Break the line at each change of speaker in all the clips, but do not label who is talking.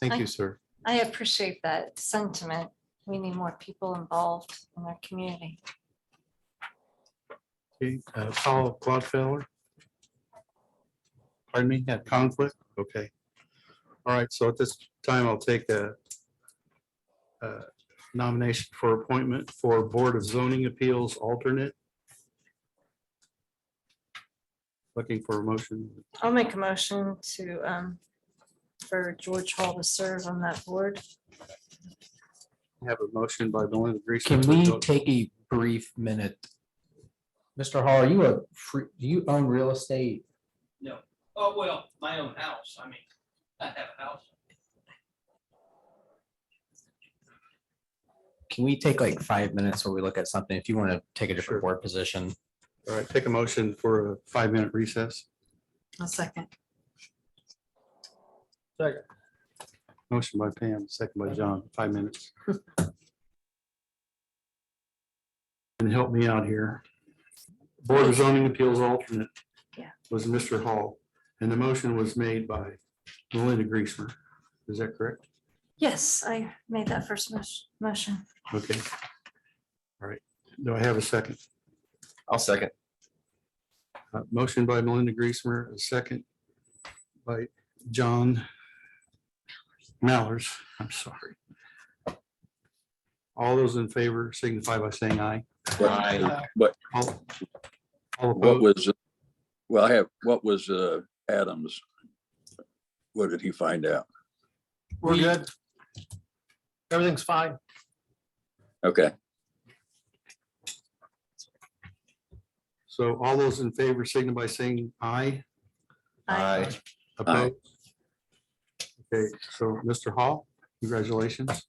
Thank
I-
you, sir.
I appreciate that sentiment. We need more people involved in our community.
Okay, uh, Paul Clodfeller? Pardon me, had conflict? Okay. All right, so at this time, I'll take a a nomination for appointment for Board of Zoning Appeals alternate. Looking for a motion.
I'll make a motion to, um, for George Hall to serve on that board.
Have a motion by Belinda Greason.
Can we take a brief minute? Mr. Hall, are you a, free do you own real estate?
Oh, well, my own house, I mean, I have a house.
Can we take like five minutes where we look at something? If you want to take a
Sure.
different board position,
All right, take a motion for a five-minute recess.
A second.
Motion by Pam, second by John, five minutes. And help me out here. Board of Zoning Appeals alternate.
Yeah.
Was Mr. Hall, and the motion was made by Melinda Griesmer. Is that correct?
Yes, I made that first mos- motion.
Okay. All right, do I have a second?
I'll second.
Uh, Motion by Melinda Griesmer, a second by John Mallers, I'm sorry. All those in favor signify by saying aye.
But but
All all
what
opposed,
was, well, I have, what was uh Adams? What did he find out?
We're good. Everything's fine.
Okay,
so all those in favor signify by saying aye.
I
Opposed. Okay, so Mr. Hall, congratulations.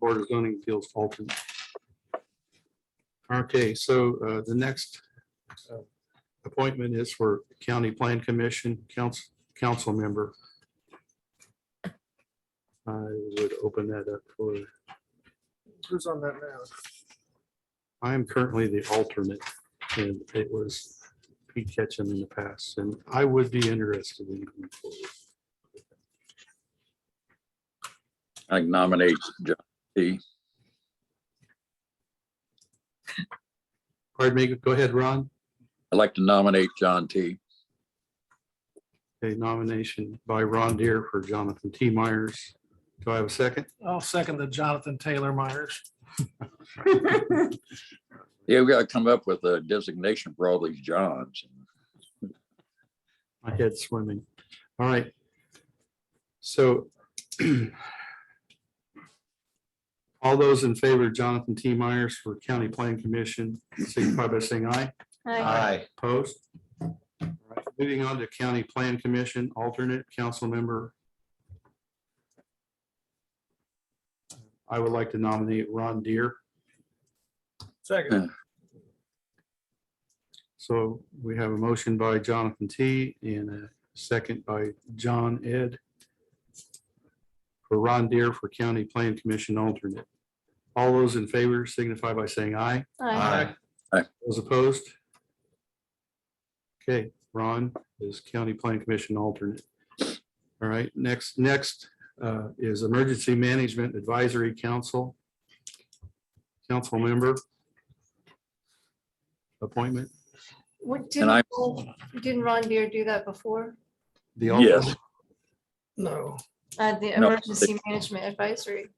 Board of Zoning Appeals alternate. Okay, so uh, the next uh, appointment is for County Plan Commission Council, Council Member. I would open that up for,
Who's on that now?
I am currently the alternate, and it was Pete Ketchum in the past, and I would be interested in. going forward.
I nominate John T.
Pardon me, go ahead, Ron.
I'd like to nominate John T.
A nomination by Ron Deere for Jonathan T. Myers. Do I have a second?
I'll second the Jonathan Taylor Myers.
Yeah, we gotta come up with a designation for all these Johns.
My head's swimming. All right. So all those in favor of Jonathan T. Myers for County Plan Commission, signify by saying aye.
I
Opposed? All right, Moving on to County Plan Commission, alternate council member. I would like to nominate Ron Deere.
Second.
So we have a motion by Jonathan T and a second by John Ed. For Ron Deere for County Plan Commission alternate. All those in favor signify by saying aye.
I
Those opposed? Okay, Ron is County Plan Commission alternate. All right, next, next uh, is Emergency Management Advisory Council. Council member. Appointment.
What,
And I-
didn't, Paul- didn't Ron Deere do that before?
The
Yes.
alternate-
No.
Uh, the
No.
Emergency Management Advisory.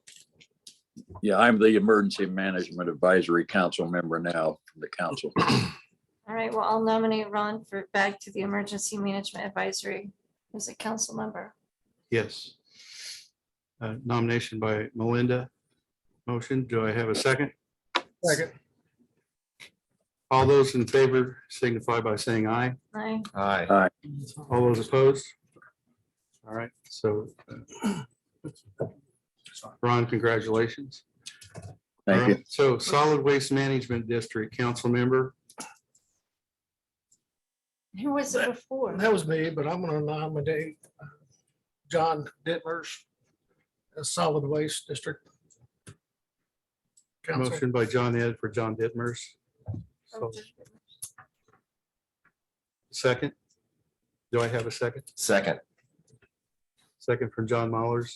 Yeah, I'm the Emergency Management Advisory Council member now from the council.
All right, well, I'll nominate Ron for back to the Emergency Management Advisory as a council member.
Yes. Uh, Nomination by Melinda. Motion, do I have a second?
Second.
All those in favor signify by saying aye.
I,
Aye.
All those opposed? All right, so. uh, Ron, congratulations.
Thank
All
you.
right, So Solid Waste Management District Council Member,
who was it before?
That was me, but I'm gonna nominate uh, John Dittmers as Solid Waste District. Council.
motion by John Ed for John Ditmers.
Oh,
So, Second. Do I have a second?
Second.
Second from John Mollers.